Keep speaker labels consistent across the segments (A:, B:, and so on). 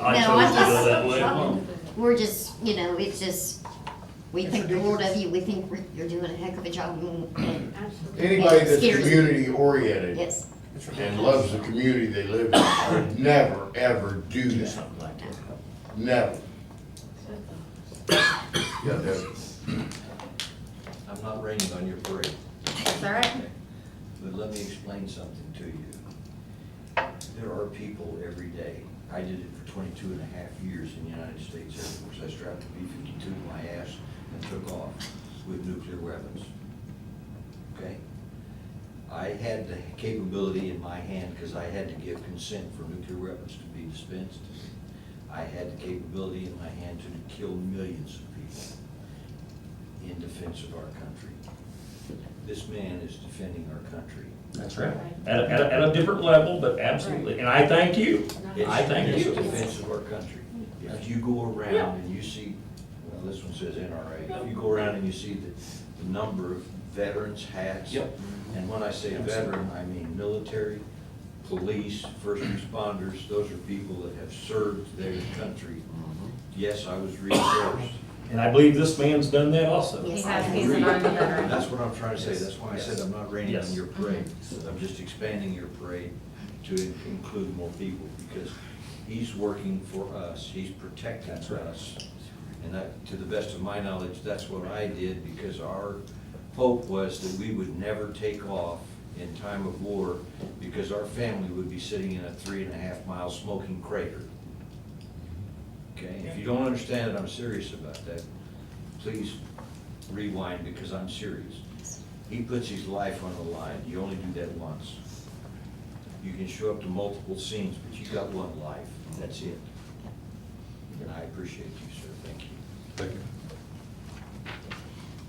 A: I
B: No,
A: chose to
B: I
A: go
B: just-
A: that way.
B: We're just, you know, it's just, we think the world of you, we think we're- you're doing a heck of a job, and- and,
C: Anybody that's
B: Scares me.
C: community oriented
B: yes,
C: and loves the community they live in would never, ever do
A: Do
C: that.
A: something like that.
C: Never. Yeah, that-
D: I'm not raining on your parade,
B: that's all right.
D: but let me explain something to you. There are people every day, I did it for 22 and a half years in the United States Air Force, I strapped a B-52 to my ass and took off with nuclear weapons. Okay? I had the capability in my hand, because I had to give consent for nuclear weapons to be dispensed. I had the capability in my hand to kill millions of people in defense of our country. This man is defending our country.
A: That's right. At, a- at, a- at a different level, but absolutely. And I thank you. I thank
D: It's
A: you.
D: a defense of our country. If you go around and you see, well, this one says NRA, if you go around and you see the, the number of veterans hats.
A: Yep.
D: And when I say veteran, I mean military, police, first responders, those are people that have served their country.
A: Mm-hmm.
D: Yes, I was reinforced.
A: And I believe this man's done that also.
B: Yes,
E: He has-
B: I
E: he's
B: agree.
E: an army veteran.
D: That's what I'm trying to say, that's why I said I'm not raining on
A: Yes.
D: your parade. I'm just expanding your parade to in- include more people, because he's working for us, he's protecting
A: That's right.
D: us. And that, to the best of my knowledge, that's what I did, because our hope was that we would never take off in time of war, because our family would be sitting in a three and a half mile smoking crater. Okay, if you don't understand that I'm serious about that, please rewind because I'm serious. He puts his life on the line, you only do that once. You can show up to multiple scenes, but you got one life, that's it. And I appreciate you, sir, thank you.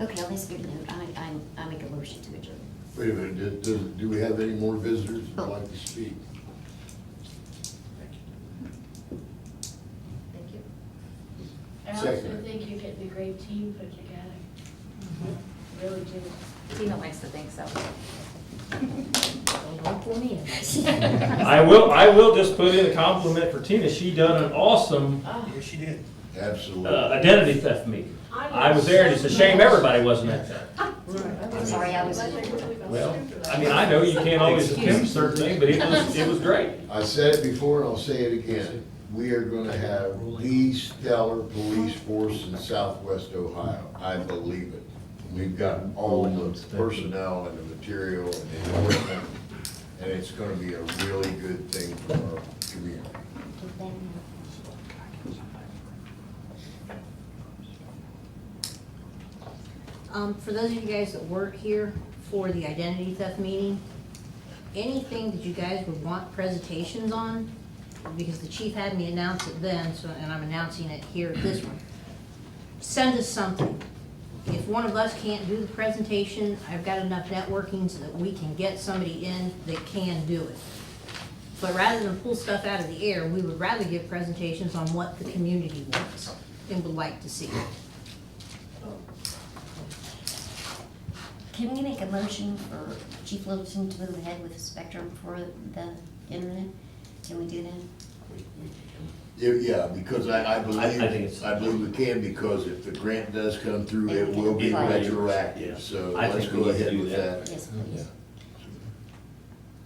B: Okay, on this good note, I, I, I make a motion to adjourn.
C: Wait a minute, do- do, do we have any more visitors who'd like to speak?
D: Thank you.
B: Thank you.
E: I also
C: Second.
E: think you get the great team put together. Really do.
F: Tina likes to think so.
A: I will, I will just put in a compliment for Tina. She done an awesome uh,
C: Absolutely.
A: identity theft meeting. I was there and it's a shame everybody wasn't at that.
B: I'm sorry, I was,
A: Well, I mean, I know you can't always attend certain things, but it was, it was great.
C: I said it before and I'll say it again. We are gonna have the stellar police force in southwest Ohio. I believe it. We've got all the personnel and the material and the equipment, and it's gonna be a really good thing for our community.
G: Um, for those of you guys that work here for the identity theft meeting, anything that you guys would want presentations on, because the chief had me announce it then, so, and I'm announcing it here at this one. Send us something. If one of us can't do the presentation, I've got enough networking so that we can get somebody in that can do it. But rather than pull stuff out of the air, we would rather give presentations on what the community wants and would like to see.
B: can we make a motion for Chief Littleton to move ahead with Spectrum for the internet? Can we do that?
C: Yeah, Yeah, because I, I
A: I- I think it's-
C: believe, I believe we can, because if the grant does come through, it will be
B: Right.
A: Yeah.
C: retroactive, so
A: I
C: let's
A: think we
C: go
A: need to
C: ahead
A: do
C: with
A: that.
C: that.
B: Yes, please.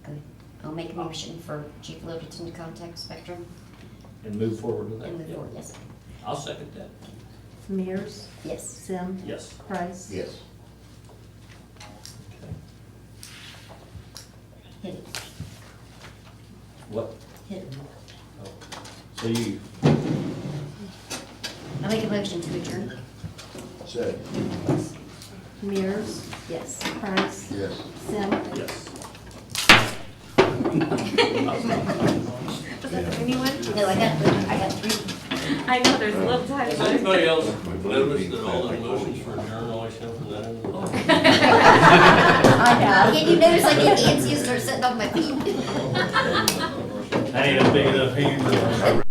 B: Good. I'll make a motion for Chief Littleton to contact Spectrum
A: And move forward with
B: and move
A: that.
B: forward, yes,
A: I'll second that.
G: Mears,
B: yes.
G: Sim,
A: Yes.
G: Price.
C: Yes.
B: Hit it,
A: What? Oh.
B: hit it.
A: So you,
B: I make a motion to adjourn.
C: Said,
G: Mears,
B: Yes.
G: Price,
C: yes.
G: Sim.
A: yes.
F: Was that the new one?
B: No, I got, I got three.
F: I know, there's a little time.
H: Has anybody else noticed that all the motions for adjournment always come from that end of the table?
B: I know. Did you notice I did dance yesterday, sitting on my feet?
A: I ain't a big enough hand.